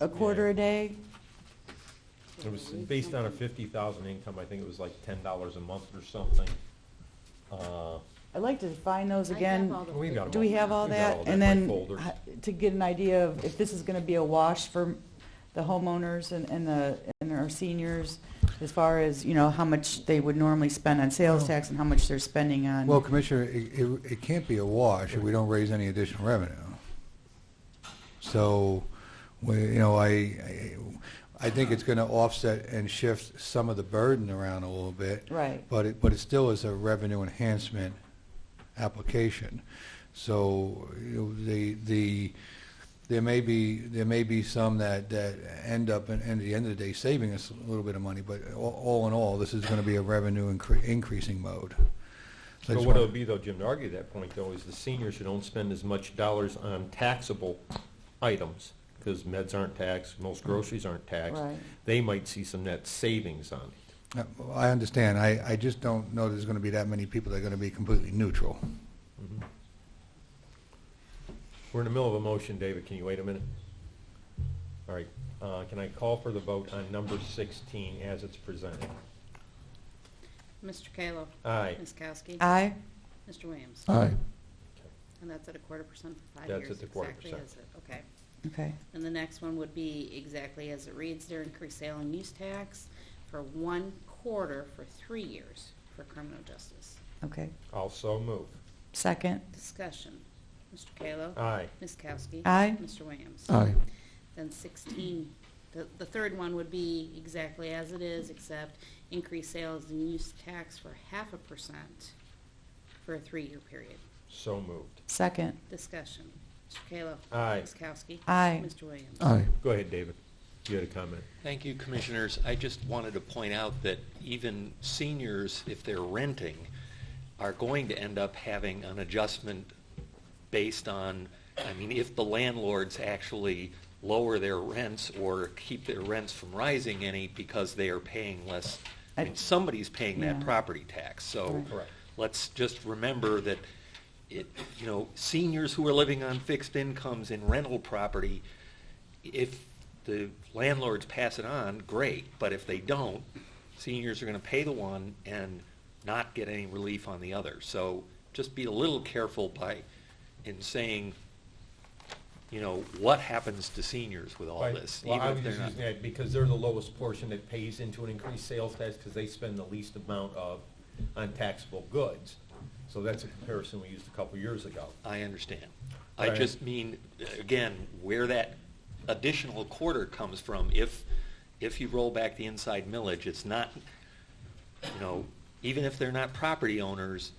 a quarter a day? It was based on a fifty thousand income, I think it was like ten dollars a month or something. Uh, I'd like to find those I have again. all the We've got 'em Do we have all We've got that? all that And by then folder. uh, to get an idea of if this is going to be a wash for the homeowners and, and the, and our seniors as far as, you know, how much they would normally spend on sales tax and how much they're spending on. Well, Commissioner, it, it, it can't be a wash if we don't raise any additional revenue. So, we, you know, I, I, I think it's gonna offset and shift some of the burden around a little bit. Right. But it, but it still is a revenue enhancement application. So, you know, the, the, there may be, there may be some that, that end up, and at the end of the day, saving us a little bit of money, but all, all in all, this is gonna be a revenue incre- increasing mode. So But I just what it wanna- would be though, Jim, to argue that point though, is the seniors should don't spend as much dollars on taxable items, because meds aren't taxed, most groceries aren't taxed. Right. They might see some net savings on it. Uh, I understand. I, I just don't know there's going to be that many people that are going to be completely neutral. We're in the middle of a motion, David, can you wait a minute? All right, uh, can I call for the vote on number sixteen as it's presented? Mr. Kayla. Aye. Ms. Kowski. Aye, Mr. Williams. uh, Aye. And that's at a quarter percent for five That's years. at the quarter exactly, percent. is it? Okay. okay. And the next one would be exactly as it reads, their increased sale and use tax for one quarter for three years for criminal justice. Okay. Also move. Second. Discussion. Mr. Kayla. Aye. Ms. Kowski. Aye. Mr. Williams. Aye. Then 16, the, the third one would be exactly as it is, except increase sales and use tax for half a percent for a three-year period. So moved. Second. Discussion. Mr. Kayla. Aye. Ms. Kowski. Aye. Mr. Williams. Go ahead, David. You had a comment. Thank you, Commissioners. I just wanted to point out that even seniors, if they're renting, are going to end up having an adjustment based on, I mean, if the landlords actually lower their rents or keep their rents from rising any because they are paying less, I mean, I- somebody's paying that Yeah. property tax. So Right. Correct. let's just remember that it, you know, seniors who are living on fixed incomes in rental property, if the landlords pass it on, great, but if they don't, seniors are gonna pay the one and not get any relief on the other. So just be a little careful by, in saying, you know, what happens to seniors with all Right. this? Well, even I if was they're just not- using that because they're the lowest portion that pays into an increased sales tax because they spend the least amount of, on taxable goods. So that's a comparison we used a couple years ago. I understand. I Right. just mean, again, where that additional quarter comes from, if, if you roll back the inside millage, it's not, you know, even if they're not property owners,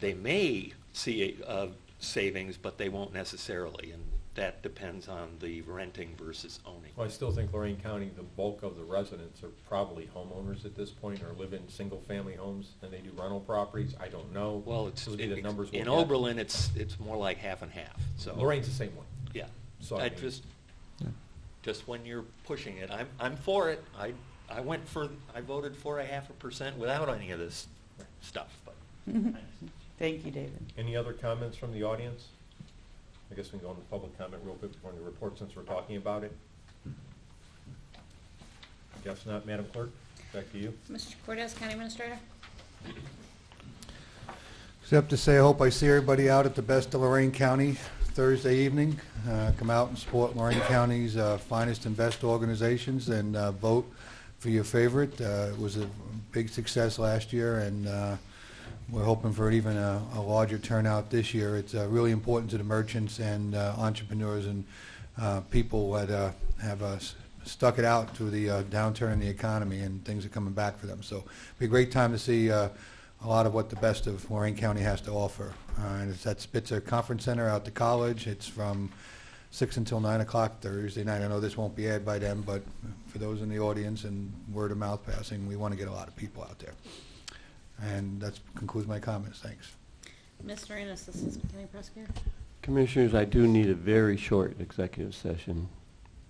they may see a, a savings, but they won't necessarily, and that depends on the renting versus owning. Well, I still think Lorraine County, the bulk of the residents are probably homeowners at this point or live in single-family homes and they do rental properties. I don't know. Well, it's, Those would be the numbers we'll in get. Oberlin, it's, it's more like half and half, so. Lorraine's the same way. Yeah, So, I I mean- just, just when you're pushing it, I'm, I'm for it. I, I went for, I voted for a half a percent without any of this stuff, but. Thank you, David. Any other comments from the audience? I guess we can go into public comment real quick before the report since we're talking about it. Guess not, Madam Clerk, back to you. Mr. Cortez, County Administrator. Except to say, I hope I see everybody out at the Best of Lorraine County Thursday evening. Uh, Come out and support Lorraine County's uh, finest and best organizations and uh, vote for your favorite. Uh, It was a big success last year, and uh, we're hoping for even a a larger turnout this year. It's uh, really important to the merchants and uh, entrepreneurs and uh, people that uh, have uh, s- stuck it out through the uh, downturn in the economy, and things are coming back for them. So it'll be a great time to see uh, a lot of what the best of Lorraine County has to offer. Uh, and it's at Spitzer Conference Center out to college. It's from 6 until 9 o'clock Thursday night. I know this won't be aired by them, but for those in the audience and word of mouth passing, we want to get a lot of people out there. And that concludes my comments. Thanks. Ms. Norina, Assistant County Prosecutor. Commissioners, I do need a very short executive session,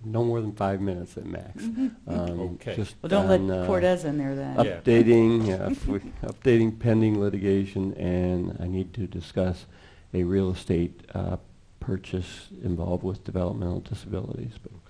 no more than five minutes at max. Um, Okay. just Well, don't on, let uh, Cortez in there then. Yeah. Updating, yeah, if we- updating pending litigation, and I need to discuss a real estate uh, purchase involved with developmental disabilities. But